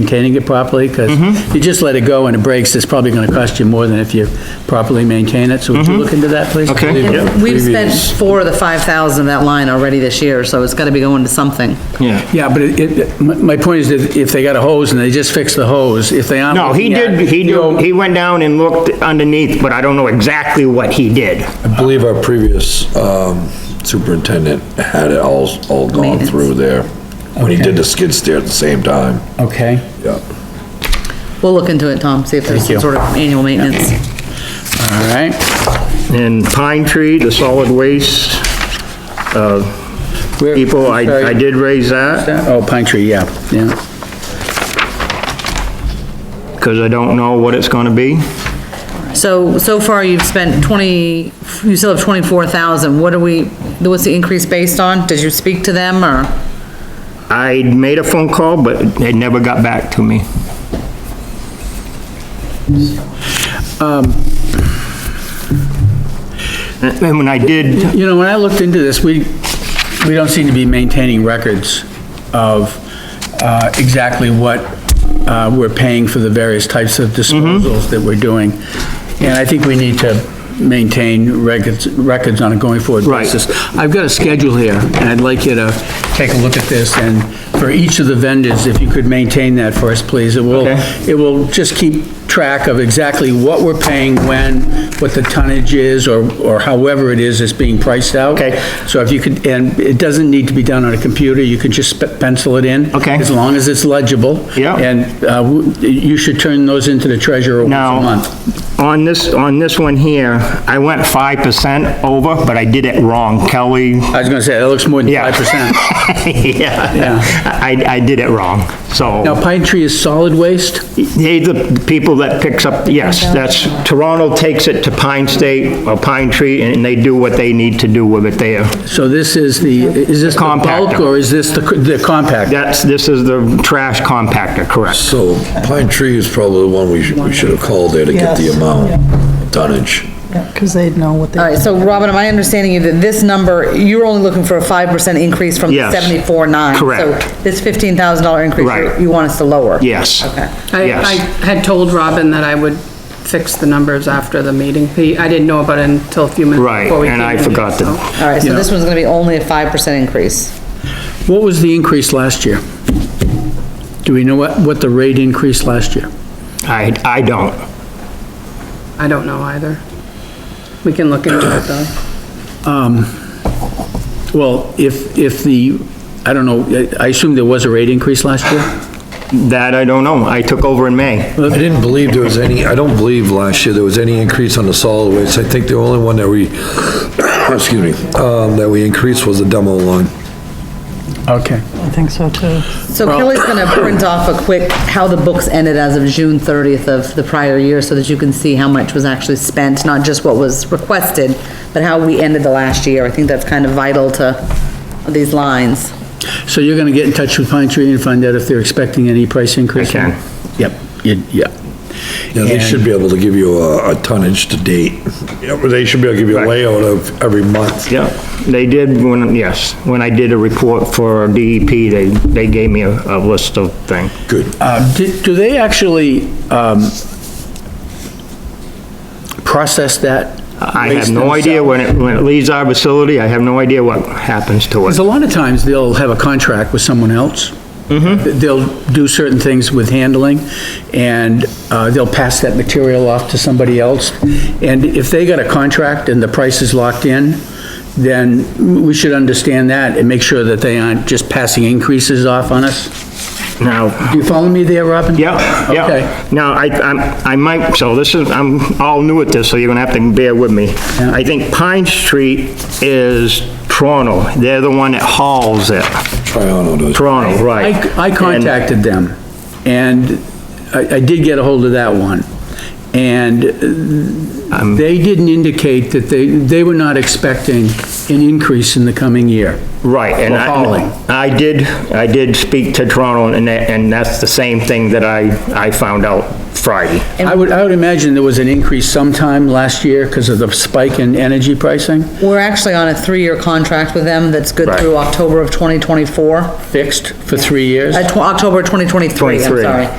maintaining it properly, because Mm-hmm. you just let it go and it breaks, it's probably gonna cost you more than if you properly maintain it, so would you look into that, please? Mm-hmm. Okay. Yep. We've spent four of the 5,000 of that line already this year, so it's gotta be going to something. Yeah. Yeah, but it- it, my my point is that if they got a hose and they just fix the hose, if they aren't. No, he looking at did, it, he you know, did, he went down and looked underneath, but I don't know exactly what he did. I believe our previous um, superintendent had it all, all gone Maintenance. through there, when he Okay. did the skid steer at the same time. Okay. Yeah. We'll look into it, Tom, see if there's Thank you. some sort of annual maintenance. All right. And pine tree, the solid waste, uh, Where- people, I, I did raise that, Oh, pine tree, yeah, yeah. because I don't know what it's gonna be. So, so far you've spent 20, you still have 24,000, what are we, what's the increase based on? Did you speak to them, or? I made a phone call, but it never got back to me. Um, And when I did, You know, when I looked into this, we, we don't seem to be maintaining records of uh, exactly what uh, we're paying for the various types of disposals that we're doing. And I think we need to maintain records, records on a going forward Right. basis. I've got a schedule here, and I'd like you to take a look at this, and for each of the vendors, if you could maintain that for us, please. It will, Okay. it will just keep track of exactly what we're paying when, what the tonnage is, or, or however it is that's being priced out. Okay. So if you could, and it doesn't need to be done on a computer, you can just pe- pencil it in. Okay. As long as it's legible. Yeah. And, uh, w- you should turn those into the treasurer once a now, month. on this, on this one here, I went 5% over, but I did it wrong. Kelly, I was gonna say, that looks more than Yeah. five percent. yeah, I, I did it wrong, so. Now, Pine Tree is solid waste? They, the people that picks up, yes, that's, Toronto takes it to Pine State or Pine Tree, and they do what they need to do with it there. So this is the, is this the bulk, Compactor. or is this the, the compact? That's, this is the trash compactor, correct? So Pine Tree is probably the one we should, we should have called there to get the Yes. amount of tonnage. Because they'd know what All they, right, so Robin, am I understanding you that this number, you're only looking for a 5% increase from the Yes. 74.9? Correct. So this $15,000 increase, Right. you- you want us to lower? Yes. Okay. I, Yes. I had told Robin that I would fix the numbers after the meeting. He, I didn't know about it until a few minutes Right, before we came and I in here, forgot to- so. All right, so Yeah. this one's gonna be only a 5% increase. What was the increase last year? Do we know what, what the rate increased last year? I, I don't. I don't know either. We can look into it though. Well, if, if the, I don't know, I assume there was a rate increase last year? That I don't know. I took over in May. I didn't believe there was any, I don't believe last year there was any increase on the solid waste. I think the only one that we, excuse me, um, that we increased was the demo line. Okay. I think so too. So Kelly's gonna print off a quick, how the books ended as of June 30th of the prior year, so that you can see how much was actually spent, not just what was requested, but how we ended the last year. I think that's kind of vital to these lines. So you're gonna get in touch with Pine Tree and find out if they're expecting any price increase? I can. Yep, you- yeah. Yeah, they And- should be able to give you a, a tonnage to date. Yeah, but They should be able to give you a Right. layout of every month. Yeah, they did when, yes, when I did a report for DEP, they, they gave me a, a list of things. Good. Uh, do do they actually, um, process that? I waste have no idea when it, when it leaves our facility, I have no idea what happens to it. Because a lot of times, they'll have a contract with someone else. Mm-hmm. They'll do certain things with handling, and uh, they'll pass that material off to somebody else. And if they got a contract and the price is locked in, then we should understand that and make sure that they aren't just passing increases off on us. Now, Do you follow me there, Robin? Yeah, Okay. yeah. Now, I, I'm- I might, so this is, I'm all new at this, so you're gonna have to bear with me. Yeah. I think Pine Street is Toronto. They're the one that hauls it. Triano does. Toronto, right. I, I And- contacted them, and I, I did get a hold of that one. And Um, they didn't indicate that they, they were not expecting an increase in the coming year. Right, and Or following. I, I did, I did speak to Toronto, and that, and that's the same thing that I, I found out Friday. I would, I would imagine there was an increase sometime last year because of the spike in energy pricing, We're actually on a three-year contract with them that's good Right. through October of 2024, uh, fixed for three years. tw- October 2023, I'm 23. sorry.